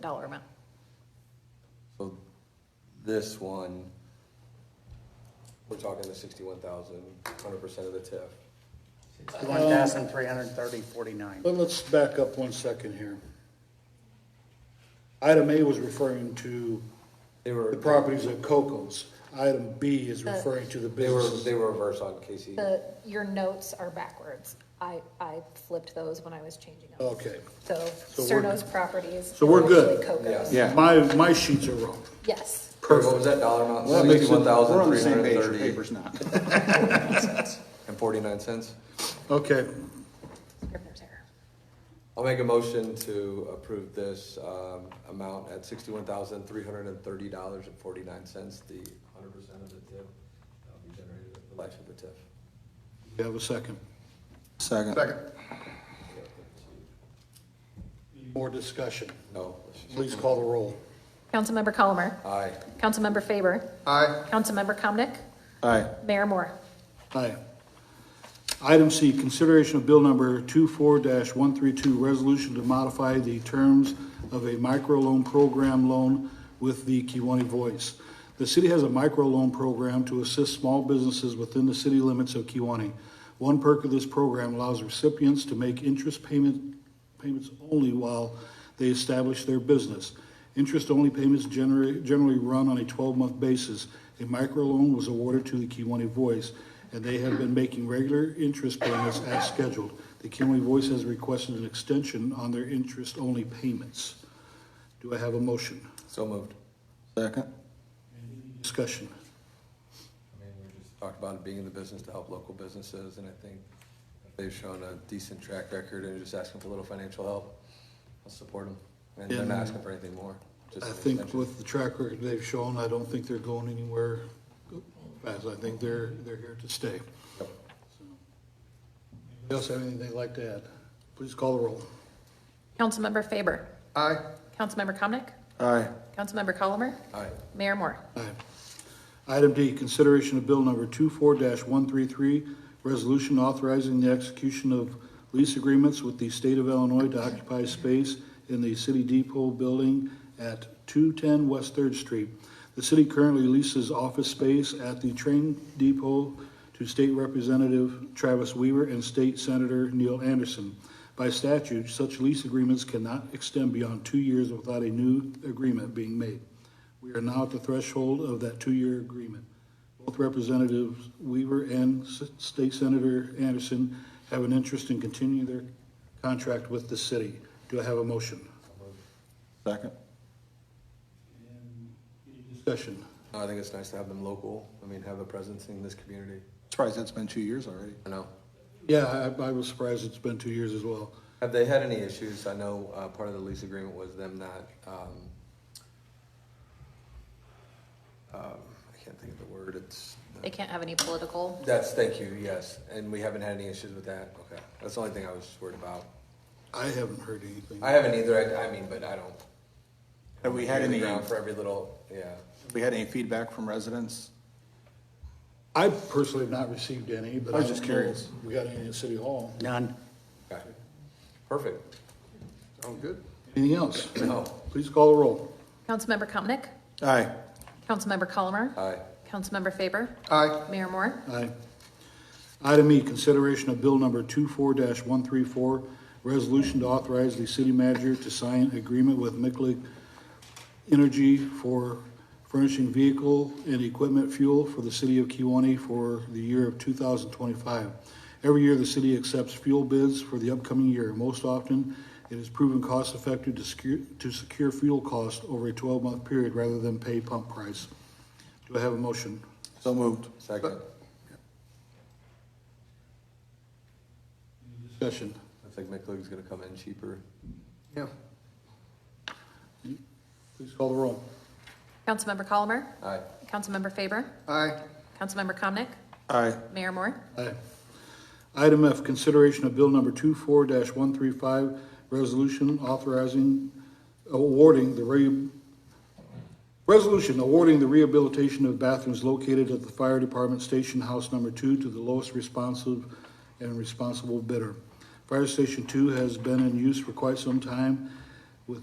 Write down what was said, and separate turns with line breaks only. dollar amount.
So this one, we're talking the sixty-one thousand, hundred percent of the TIF.
One thousand three hundred thirty forty-nine.
But let's back up one second here. Item A was referring to
They were.
the properties at Coco's. Item B is referring to the
They were,
business.
they were reverse on Casey.
The, your notes are backwards. I, I flipped those when I was changing them.
Okay.
So
Oh. we're-
Cerno's properties.
So we're
are
good.
actually Coco's.
Yeah.
My, my sheets are wrong.
Yes.
Kurt, what was that dollar amount?
Well, that makes it-
Sixty-one
We're
thousand,
on the
three
same
hundred
page, your
thirty
paper's not.
and forty-nine cents.
Okay,
Scrivener's error.
I'll make a motion to approve this, um, amount at sixty-one thousand, three hundred and thirty dollars and forty-nine cents, the hundred percent of the TIF that'll be generated at the life of the TIF.
you have a second.
Second.
More discussion.
No, let's just-
Please call the roll.
Councilmember Colomer.
aye.
Councilmember Faber.
Aye.
Councilmember Comnic.
Aye.
Mayor Moore.
Aye. Item C, consideration of bill number 24 one three two, resolution to modify the terms of a microloan program loan with the Kiwanee Voice. The city has a microloan program to assist small businesses within the city limits of Kiwanee. One perk of this program allows recipients to make interest payment, payments only while they establish their business. Interest-only payments generally, generally run on a twelve-month basis. A microloan was awarded to the Kiwanee Voice, and they have been making regular interest payments as scheduled. The Kiwanee Voice has requested an extension on their interest-only payments. Do I have a motion?
So moved.
Second.
Discussion.
I mean, we just talked about it being in the business to help local businesses, and I think they've shown a decent track record and just asking for a little financial help. I'll support them, and they're not asking for anything more. just
I
an
think
extension.
with the track record they've shown, I don't think they're going anywhere fast. I think they're, they're here to stay.
Yep.
Anybody else have anything they'd like to add? Please call the roll.
Councilmember Faber.
Aye.
Councilmember Comnic.
Aye.
Councilmember Colomer.
Aye,
Mayor Moore.
Aye. Item D, consideration of bill number 24 one-three-three, resolution authorizing the execution of lease agreements with the state of Illinois to occupy space in the City Depot building at two-ten West Third Street. The city currently leases office space at the train depot to State Representative Travis Weaver and State Senator Neil Anderson. By statute, such lease agreements cannot extend beyond two years without a new agreement being made. We are now at the threshold of that two-year agreement. Both Representatives Weaver and S- State Senator Anderson have an interest in continuing their contract with the city. Do I have a motion?
Second.
Discussion.
No, I think it's nice to have them local, I mean, have a presence in this community,
Surprised that's been two years already.
I know.
Yeah, I, I was surprised it's been two years as well.
Have they had any issues? I know, uh, part of the lease agreement was them not, um, um, I can't think of the word, it's.
They can't have any political.
That's, thank you, yes, and we haven't had any issues with that, okay, that's the only thing I was worried about.
I haven't heard anything.
I haven't either, I, I mean, but I don't.
Have we had
Ear to the
any,
ground
have
For every little, yeah,
we had any feedback from residents?
I personally have not received any, but
I
I
was
don't
just
know
curious.
if we got any at City Hall.
None.
okay, perfect,
Sound good.
Anything else?
no,
Please call the roll.
Councilmember Comnic.
Aye.
Councilmember Colomer.
aye,
Councilmember Faber.
Aye.
Mayor Moore.
Aye. Item E, consideration of bill number 24 one three four, resolution to authorize the city manager to sign agreement with Micklig Energy for furnishing vehicle and equipment fuel for the city of Kiwanee for the year of two thousand twenty-five. Every year, the city accepts fuel bids for the upcoming year. Most often, it is proven cost-effective to secure, to secure fuel cost over a twelve-month period rather than pay pump price. Do I have a motion?
So moved.
second,
Discussion.
I think McLeod's gonna come in cheaper,
Yeah.
Please call the roll.
Councilmember Colomer.
aye,
Councilmember Faber.
Aye.
Councilmember Comnic.
Aye.
Mayor Moore.
Aye. Item F, consideration of bill number 24 one three five, resolution authorizing, awarding the re, resolution awarding the rehabilitation of bathrooms located at the fire department station house number two to the lowest responsive and responsible bidder. Fire Station Two has been in use for quite some time